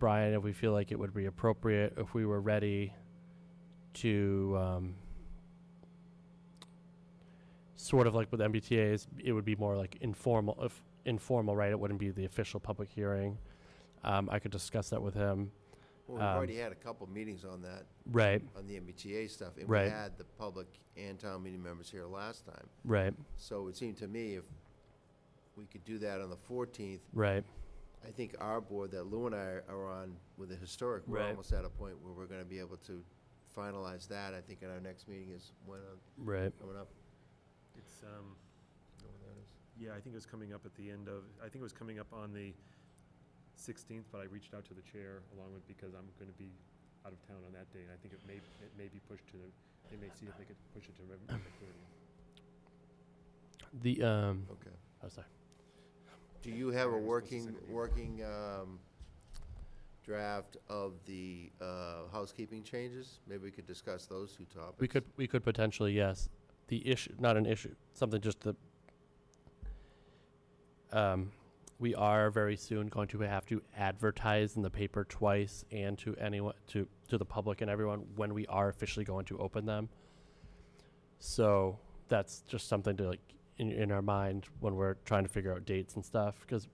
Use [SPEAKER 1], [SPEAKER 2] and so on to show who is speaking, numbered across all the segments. [SPEAKER 1] Brian if we feel like it would be appropriate if we were ready to um, sort of like with MBTA's, it would be more like informal, if informal, right? It wouldn't be the official public hearing. Um, I could discuss that with him.
[SPEAKER 2] Well, we've
[SPEAKER 1] Um,
[SPEAKER 2] already had a couple meetings on that,
[SPEAKER 1] Right,
[SPEAKER 2] on the MBTA stuff, and we
[SPEAKER 1] Right.
[SPEAKER 2] had the public and town meeting members here last time.
[SPEAKER 1] right,
[SPEAKER 2] So it seemed to me if we could do that on the fourteenth,
[SPEAKER 1] right,
[SPEAKER 2] I think our board that Lou and I are on with the historic, we're
[SPEAKER 1] Right.
[SPEAKER 2] almost at a point where we're gonna be able to finalize that, I think, at our next meeting is when, uh,
[SPEAKER 1] right.
[SPEAKER 2] coming up.
[SPEAKER 3] It's, um,
[SPEAKER 2] You know when that is?
[SPEAKER 3] yeah, I think it was coming up at the end of, I think it was coming up on the sixteenth, but I reached out to the chair along with, because I'm gonna be out of town on that day, and I think it may, it may be pushed to the, they may see if they could push it to November thirtieth.
[SPEAKER 1] The, um,
[SPEAKER 2] Okay.
[SPEAKER 1] oh, sorry.
[SPEAKER 2] Do you have a
[SPEAKER 3] Sorry, I was supposed to
[SPEAKER 2] working,
[SPEAKER 3] send an email.
[SPEAKER 2] working, um, draft of the, uh, housekeeping changes? Maybe we could discuss those two topics.
[SPEAKER 1] We could, we could potentially, yes. The issue, not an issue, something just the, um, we are very soon going to have to advertise in the paper twice and to anyone, to, to the public and everyone when we are officially going to open them. So that's just something to like, in, in our mind when we're trying to figure out dates and stuff, because,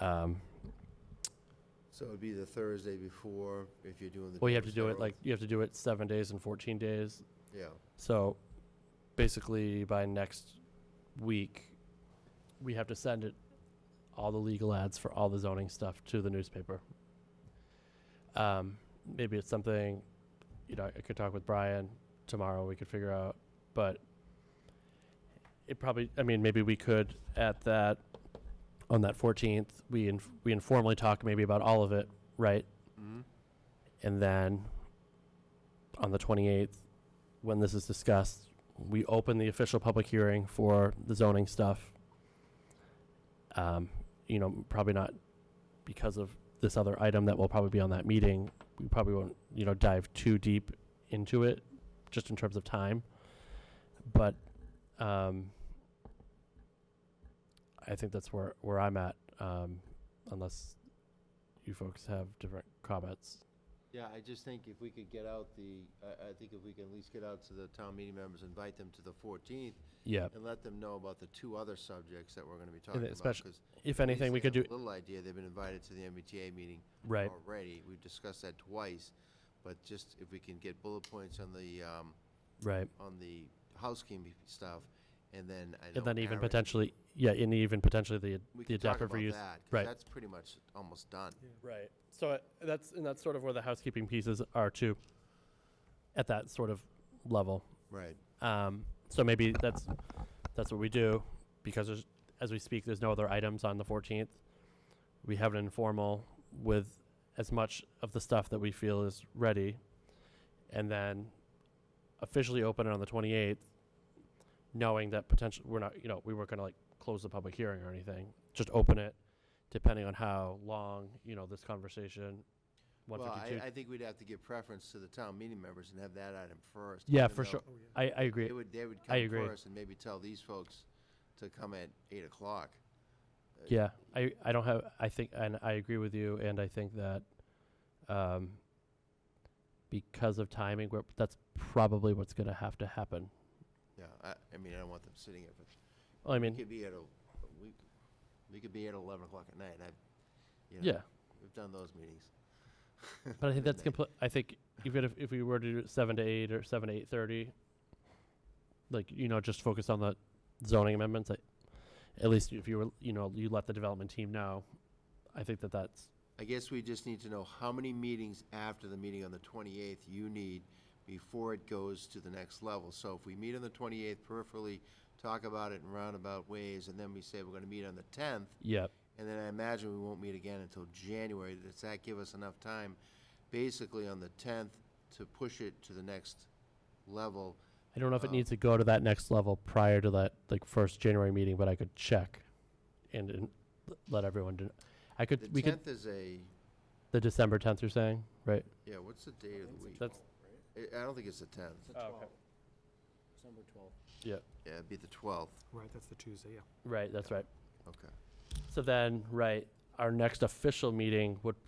[SPEAKER 1] um,
[SPEAKER 2] So it'd be the Thursday before, if you're doing the.
[SPEAKER 1] well, you have to
[SPEAKER 2] George
[SPEAKER 1] do it
[SPEAKER 2] Herald.
[SPEAKER 1] like, you have to do it seven days and fourteen days.
[SPEAKER 2] Yeah,
[SPEAKER 1] So basically, by next week, we have to send it all the legal ads for all the zoning stuff to the newspaper. Um, maybe it's something, you know, I could talk with Brian tomorrow, we could figure out, but it probably, I mean, maybe we could at that, on that 14th, we, inf- we informally talk maybe about all of it, right?
[SPEAKER 2] mm-hmm,
[SPEAKER 1] And then on the 28th, when this is discussed, we open the official public hearing for the zoning stuff. Um, You know, probably not because of this other item that will probably be on that meeting. We probably won't, you know, dive too deep into it, just in terms of time. But um, I think that's where, where I'm at, um, unless you folks have different comments.
[SPEAKER 2] yeah, I just think if we could get out the, I, I think if we can at least get out to the town meeting members, invite them to the fourteenth,
[SPEAKER 1] Yeah.
[SPEAKER 2] and let them know about the two other subjects that we're gonna be
[SPEAKER 1] then
[SPEAKER 2] talking about.
[SPEAKER 1] especially-
[SPEAKER 2] 'cause at
[SPEAKER 1] If
[SPEAKER 2] least
[SPEAKER 1] anything, we
[SPEAKER 2] they
[SPEAKER 1] could do,
[SPEAKER 2] have a Little idea, they've been invited to the MBTA meeting
[SPEAKER 1] right,
[SPEAKER 2] already, we've discussed that twice, but just if we can get bullet points on the, um,
[SPEAKER 1] right.
[SPEAKER 2] on the housekeeping stuff, and then I know.
[SPEAKER 1] And then even
[SPEAKER 2] Aaron-
[SPEAKER 1] potentially, yeah, and even potentially the,
[SPEAKER 2] we
[SPEAKER 1] the
[SPEAKER 2] can talk
[SPEAKER 1] adaptive
[SPEAKER 2] about
[SPEAKER 1] reuse.
[SPEAKER 2] that, 'cause
[SPEAKER 1] right.
[SPEAKER 2] That's pretty much almost done.
[SPEAKER 1] Right. So uh, that's, and that's sort of where the housekeeping pieces are too, at that sort of level.
[SPEAKER 2] Right.
[SPEAKER 1] Um, so maybe that's, that's what we do, because there's, as we speak, there's no other items on the fourteenth. We have an informal with as much of the stuff that we feel is ready, and then officially open it on the twenty-eighth, knowing that potentially, we're not, you know, we weren't gonna like close the public hearing or anything, just open it, depending on how long, you know, this conversation, one
[SPEAKER 2] Well,
[SPEAKER 1] fifty-two.
[SPEAKER 2] I, I think we'd have to give preference to the town meeting members and have that item first.
[SPEAKER 1] Yeah,
[SPEAKER 2] even
[SPEAKER 1] for
[SPEAKER 2] though
[SPEAKER 1] sure.
[SPEAKER 4] Oh,
[SPEAKER 1] I, I agree.
[SPEAKER 2] They would, they would
[SPEAKER 1] I
[SPEAKER 2] come
[SPEAKER 1] agree.
[SPEAKER 2] first and maybe tell these folks to come at eight o'clock. Uh,
[SPEAKER 1] Yeah, I, I don't have, I think, and I agree with you, and I think that, um, because of timing, we're, that's probably what's gonna have to happen.
[SPEAKER 2] Yeah, I, I mean, I don't want them sitting at,
[SPEAKER 1] I
[SPEAKER 2] we
[SPEAKER 1] mean,
[SPEAKER 2] could be at a, we, we could be at eleven o'clock at night, I, you know.
[SPEAKER 1] yeah,
[SPEAKER 2] We've done those meetings.
[SPEAKER 1] but I think that's
[SPEAKER 2] Midnight.
[SPEAKER 1] complete, I think even if, if we were to do it seven to eight or seven to eight thirty, like, you know, just focus on the zoning amendments, I, at least if you were, you know, you let the development team know, I think that that's,
[SPEAKER 2] I guess we just need to know how many meetings after the meeting on the twenty-eighth you need before it goes to the next level. So if we meet on the twenty-eighth peripherally, talk about it in roundabout ways, and then we say we're gonna meet on the tenth,
[SPEAKER 1] yeah,
[SPEAKER 2] And then I imagine we won't meet again until January. Does that give us enough time, basically on the tenth, to push it to the next level?
[SPEAKER 1] I don't know if it
[SPEAKER 2] Um,
[SPEAKER 1] needs to go to that next level prior to that like first January meeting, but I could check and, and l- let everyone. Do, I could
[SPEAKER 2] The
[SPEAKER 1] we could
[SPEAKER 2] tenth is a,
[SPEAKER 1] the December tenth. You're saying right?
[SPEAKER 2] yeah, what's the date of the week?
[SPEAKER 1] That's
[SPEAKER 2] I- I don't think it's the tenth.
[SPEAKER 4] It's the
[SPEAKER 1] Oh, okay.
[SPEAKER 4] 12th, December 12th.
[SPEAKER 2] Yeah, it'd be the twelfth.
[SPEAKER 4] Right, that's the Tuesday, yeah.
[SPEAKER 1] right. That's right.
[SPEAKER 2] Okay.
[SPEAKER 1] So then, right, our next official meeting would